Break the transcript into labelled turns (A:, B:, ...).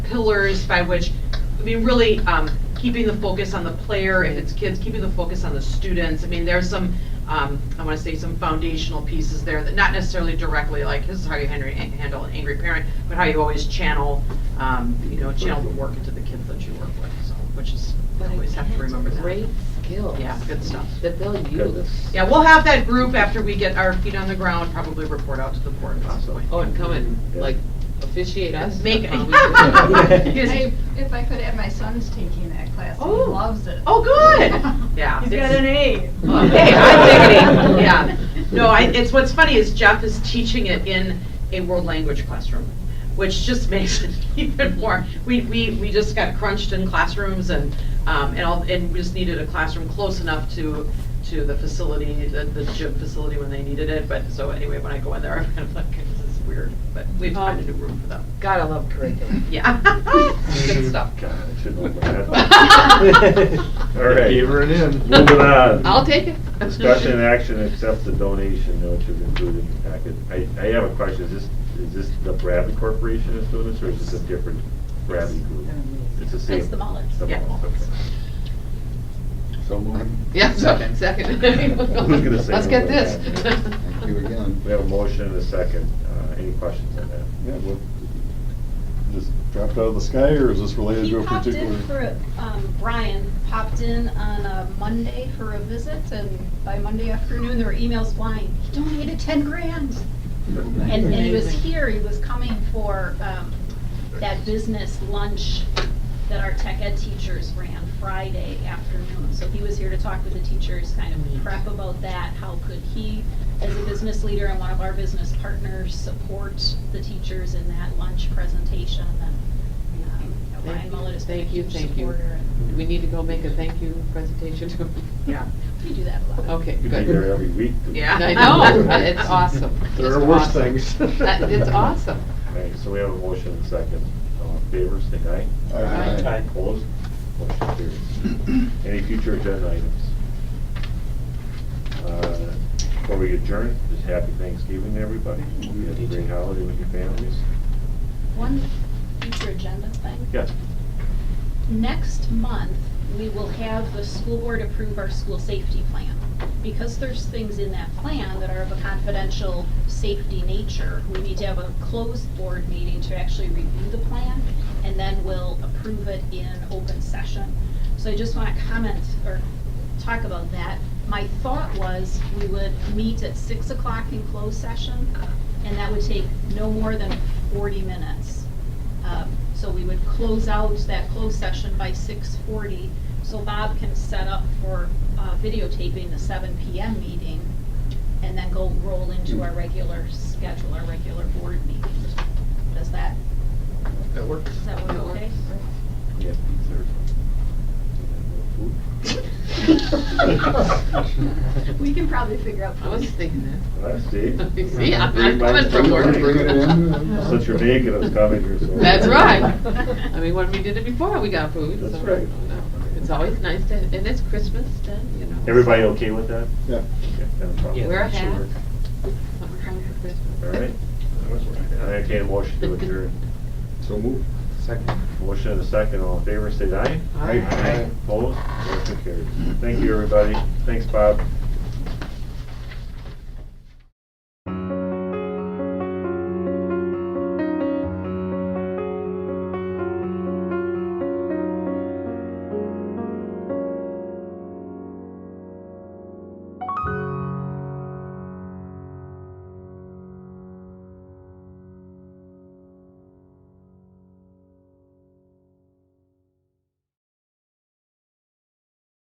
A: pillars by which, I mean, really, um, keeping the focus on the player, if it's kids, keeping the focus on the students. I mean, there's some, um, I wanna say some foundational pieces there that not necessarily directly, like, this is how you handle, handle an angry parent, but how you always channel, um, you know, channel the work into the kids that you work with, so, which is, you
B: But
A: always have to remember that.
B: Great skills.
A: Yeah, good stuff.
B: That they'll
C: Goodness.
B: use.
A: Yeah, we'll have that group after we get our feet on the ground, probably report out to the board possibly.
B: Oh, and come and like officiate us.
A: Make,
D: I, if I could add, my son's taking that class, he
A: Oh.
D: loves it.
A: oh, good, yeah.
E: He's got an A.
A: Oh, Hey, I'm diggity, yeah. No, I, it's, what's funny is Jeff is teaching it in a world language classroom, which just makes it even more. We, we, we just got crunched in classrooms and, um, and all, and we just needed a classroom close enough to, to the facility, the, the gym facility when they needed it, but, so anyway, when I go in there, I'm kind of like, this is weird, but we found a new room for them,
B: Gotta love curriculum.
A: Oh. yeah. Good stuff.
C: God, I should know that. All right.
F: Gave her an in.
C: Moving on.
B: I'll take it.
C: Discussion and action, accept the donation, which is included in the packet. I, I have a question, is this, is this the Bradley Corporation that's doing this, or is this a different Bradley group? It's the same.
G: It's the Mullins.
C: The
A: Yeah.
C: Mullins, okay.
H: So um, moved.
B: Yeah, second, second.
C: Who's gonna say
B: Let's
C: no
B: get
C: to
B: this.
C: that?
H: Thank you again.
C: We have a motion and a second. Uh, Any questions on that?
H: Yeah, what, just dropped out of the sky, or is this related
G: He
H: to a
G: popped
H: particular?
G: in for, a- um, Brian popped in on a Monday for a visit, and by Monday afternoon, there were emails flying, he donated ten grand. And, and he was here, he was coming for, um, that business lunch that our tech ed teachers ran Friday afternoon. So he was here to talk with the teachers, kind of prep about that, how could he, as a business leader and one of our business partners, support the teachers in that lunch presentation, and, um, you know, Ryan Mullet is a
B: Thank you,
G: huge
B: thank you.
G: supporter, and
B: We need to go make a thank you presentation.
A: Yeah.
G: we do that a lot.
B: Okay,
C: You'd be
B: good.
C: there every week.
A: Yeah.
B: I know, it's awesome.
F: There
B: Just
F: are worse
B: awesome.
F: things.
B: That- It's awesome.
C: All right, so we have a motion and a second. All in favor, say aye.
H: All right.
F: Aye.
C: Opposed? Motion carries. Any future agenda items? Uh, Before we adjourn, just happy Thanksgiving to everybody. Hope you had a great holiday with your families.
G: One future agenda thing.
C: Yes.
G: Next month, we will have the school board approve our school safety plan. Because there's things in that plan that are of a confidential safety nature, we need to have a closed board meeting to actually review the plan, and then we'll approve it in open session. So I just want to comment or talk about that. My thought was we would meet at six o'clock in closed session, and that would take no more than forty minutes. Um, So we would close out that closed session by six forty, so Bob can set up for uh, videotaping the seven PM meeting, and then go roll into our regular schedule, our regular board meeting. Does that,
F: That works.
G: does that work
B: That
G: okay?
C: Yes,
G: We can probably figure out.
B: I was thinking
C: Let's see.
B: that. See, I'm I'm coming from work.
C: Bring it
H: in.
C: Since you're making us come in here, so.
B: That's right. I mean, when we did it before, we got food.
C: That's
B: so,
C: right.
B: you know, It's always nice to, and it's Christmas then, you know.
C: Everybody okay with that?
H: Yeah.
C: Okay, no problem.
B: Wear a hat. Something comes for Christmas.
C: All right. I entertain a motion to adjourn.
H: So moved.
F: Second.
C: Motion and a second, all in favor, say aye.
B: Aye.
H: Aye.
C: Opposed, motion carries. Thank you, everybody. Thanks, Bob.